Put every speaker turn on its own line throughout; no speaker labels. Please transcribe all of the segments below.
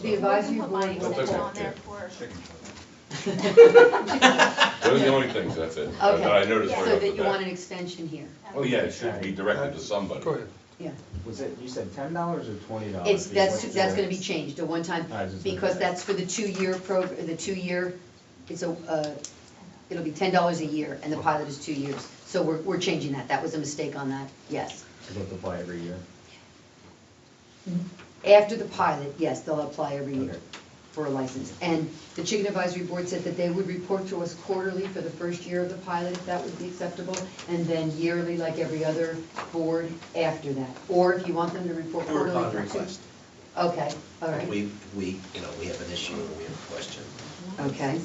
advisory
put
board
my
will-
extension on
Okay.
there for.
Those are the only things, that's it. I-
Okay.
I noticed right
So
off the
that you want
bat.
an extension here,
Oh,
Well, yeah, it should be directed to somebody.
Go ahead.
yeah.
Was it, you said ten dollars or twenty dollars?
It's, that's, that's gonna be changed, a one-time,
I was just gonna
because
say.
that's for the two-year program, the two-year, it's a, uh, it'll be ten dollars a year, and the pilot is two years. So we're, we're changing that, that was a mistake on that, yes.
Does it apply every year?
After the pilot, yes, they'll apply every year
Okay.
for a license. And the Chicken Advisory Board said that they would report to us quarterly for the first year of the pilot, if that would be acceptable, and then yearly, like every other board after that. Or if you want them to report
Or
quarterly.
upon
that's it.
request.
Okay, all
If
right,
we, we, you know, we have an issue or we have a question.
okay.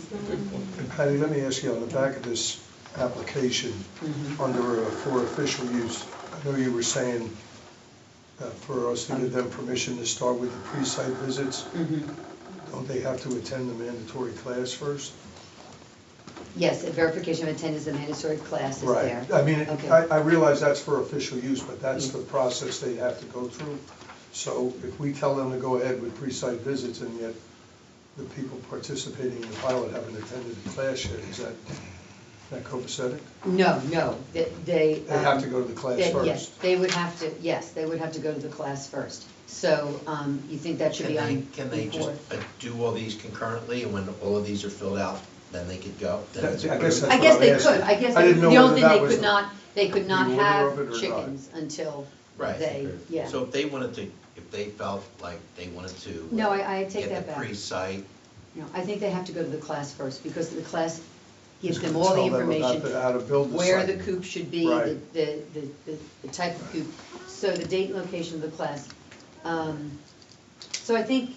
Patty, let me ask you, on the back of this application,
Mhm.
under uh, for official use, I know you were saying uh, for us to give them permission to start with the pre-site visits,
Mhm.
don't they have to attend the mandatory class first?
Yes, a verification of attendance, the mandatory class is there.
Right, I mean, it-
Okay.
I, I realize that's for official use, but that's
Mm.
the process they have to go through. So if we tell them to go ahead with pre-site visits and yet the people participating in the pilot haven't attended the class yet, is that, that copacetic?
No, no, they- they.
They have
um,
to go to the class
they- Yes,
first.
they would have to, yes, they would have to go to the class first. So um, you think that should
Can
be
they,
on
can they just
before?
uh, do all these concurrently and when all of these are filled out, then they could go? Then
That's-
it's
I guess
approved?
that's
I guess
what I'm
they could,
asking.
I guess,
I
they-
didn't know
the
whether
only
that
thing they
was
could
the-
not, they could
the
not
order of it or
have
not.
chickens until
Right.
they, yeah.
So if they wanted to, if they felt like they wanted to. uh,
No, I- I take
get
that
the
back.
pre-site,
No, I think they have to go to the class first, because the class gives them
Tell
all the
them about
information.
the- how to build the
Where the
site.
coop should be, the,
Right.
the, the- the the type of coop, so the date and location of the class. Um, So I think,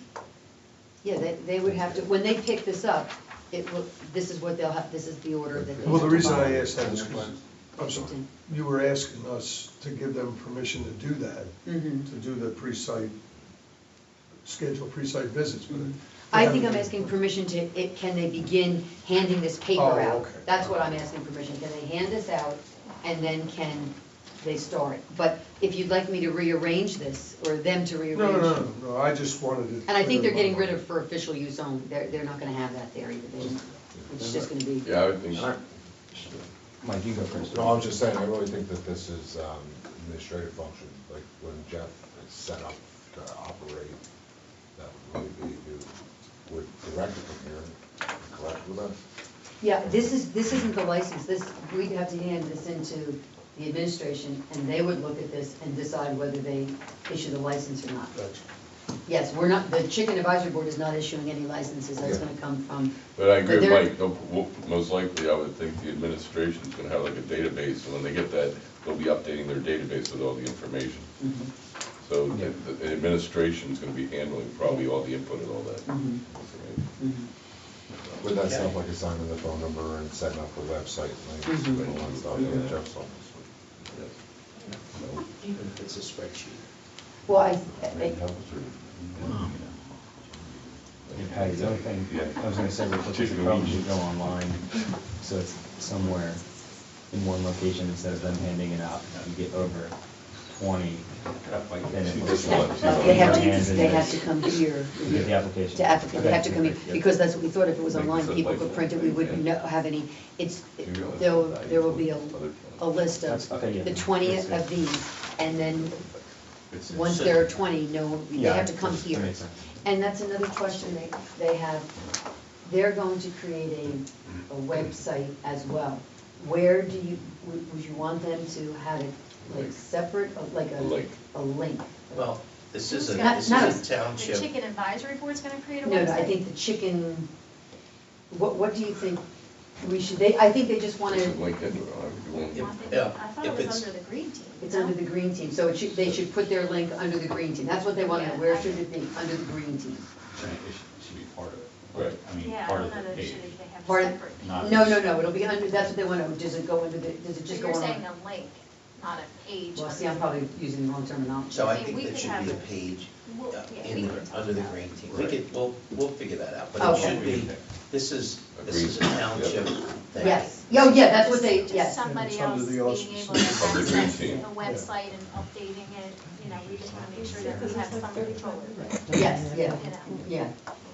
yeah, they, they would have to, when they pick this up, it will, this is what they'll have, this is the order that they
Well, the
have to
reason I
follow.
asked that is because, I'm sorry, you were asking us to give them permission to do that,
Mhm.
to do the pre-site, schedule pre-site visits, but.
Mm-hmm. I think I'm asking permission to, it, can they begin handing this
Oh,
paper out?
okay.
That's what I'm asking permission, can they hand this out, and then can they start? But if you'd like me to rearrange this, or them to
No,
rearrange.
no, no, no, I just wanted to.
And I think they're getting rid
clear
of for official use only, they're, they're not gonna have that there either, they, it's just gonna be.
Yeah, I would think,
Mike, you go first.
No, I'm just saying, I really think that this is um, administrative function, like when Jeff is set up to operate, that would really be, you would direct it from here, and correct with us.
Yeah, this is, this isn't the license, this, we'd have to hand this into the administration, and they would look at this and decide whether they issue the license or not. Yes, we're not, the chicken advisory board is not issuing any licenses, that's
Yeah.
gonna come from.
but I agree with
they're-
Mike, no- w- most likely, I would think the administration's gonna have like a database, and when they get that, they'll be updating their database with all the information.
Mhm,
So the the administration's gonna be handling probably all the input and all that.
Mhm. mhm.
Would that sound like assigning the phone number and setting up the website links
Mhm.
and all that stuff in Jeff's office? So,
even if it's a spreadsheet.
Well, I, I-
maybe help us or-
Hey, Patty, the only thing, I was gonna say, real quick, is
Chicken
you probably
wings.
should go online, so it's somewhere in one location instead of them handing it out, if you get over twenty, then it
She
looks
just
like.
wants-
they have
your hands
to,
in
they
this.
have to come here.
You get the application.
To applicant, they have to come here,
Okay, yeah.
because that's what we thought, if it was
Like
online,
this
people
is
could
like-
print it, we wouldn't know, have any, it's, there'll, there will be a, a list of
That's- okay, yeah.
the twentieth of these, and then, once
So-
there are twenty, no, they
Yeah,
have to come
that
here.
makes sense.
And that's another question they, they have, they're going to create a, a website as well. Where do you, would, would you want them to have it, like,
Link.
separate, uh, like a?
A link.
A link.
Well, this is a,
Not-
this
not
is
a-
a township.
The chicken advisory board's gonna create a
No,
website?
no, I think the chicken, what, what do you think we should, they, I think they just want
This is
to,
LinkedIn, I would do one.
I think-
Yeah,
I thought
if
it was
it's-
under the green team.
it's under the green team, so it should, they should put their link under the green team. That's what they want to know,
Yeah,
where
I-
should it be? Under the green team.
Right, it should, should be part of it.
Right.
I mean,
Yeah, I
part
don't
of
know
the
that it
page.
should, they have
Pardon?
separate.
Not
No, no,
just-
no, it'll be under, that's what they want to know, does it go under the, does it
So
just go
you're
on?
saying a link, not a page.
Well,
under
see, I'm
the-
probably using the wrong terminology.
So I
Okay,
think
we
that
could
should
have
be a
it.
page
Well,
uh,
yeah, we
in,
can
the-
talk
under the
about it.
green team. We
Right.
could, we'll, we'll figure that out, but it
Okay.
should be This is, this is a
Agreed.
township thing.
Yes, oh, yeah, that's what they,
Just
yes.
Somebody
It's under
else
the
being able to
auspices
of the
access
green
the
team.
website and updating it, you know, we just want to make sure that we have some control over it.
Yes, yeah,
You know.
yeah.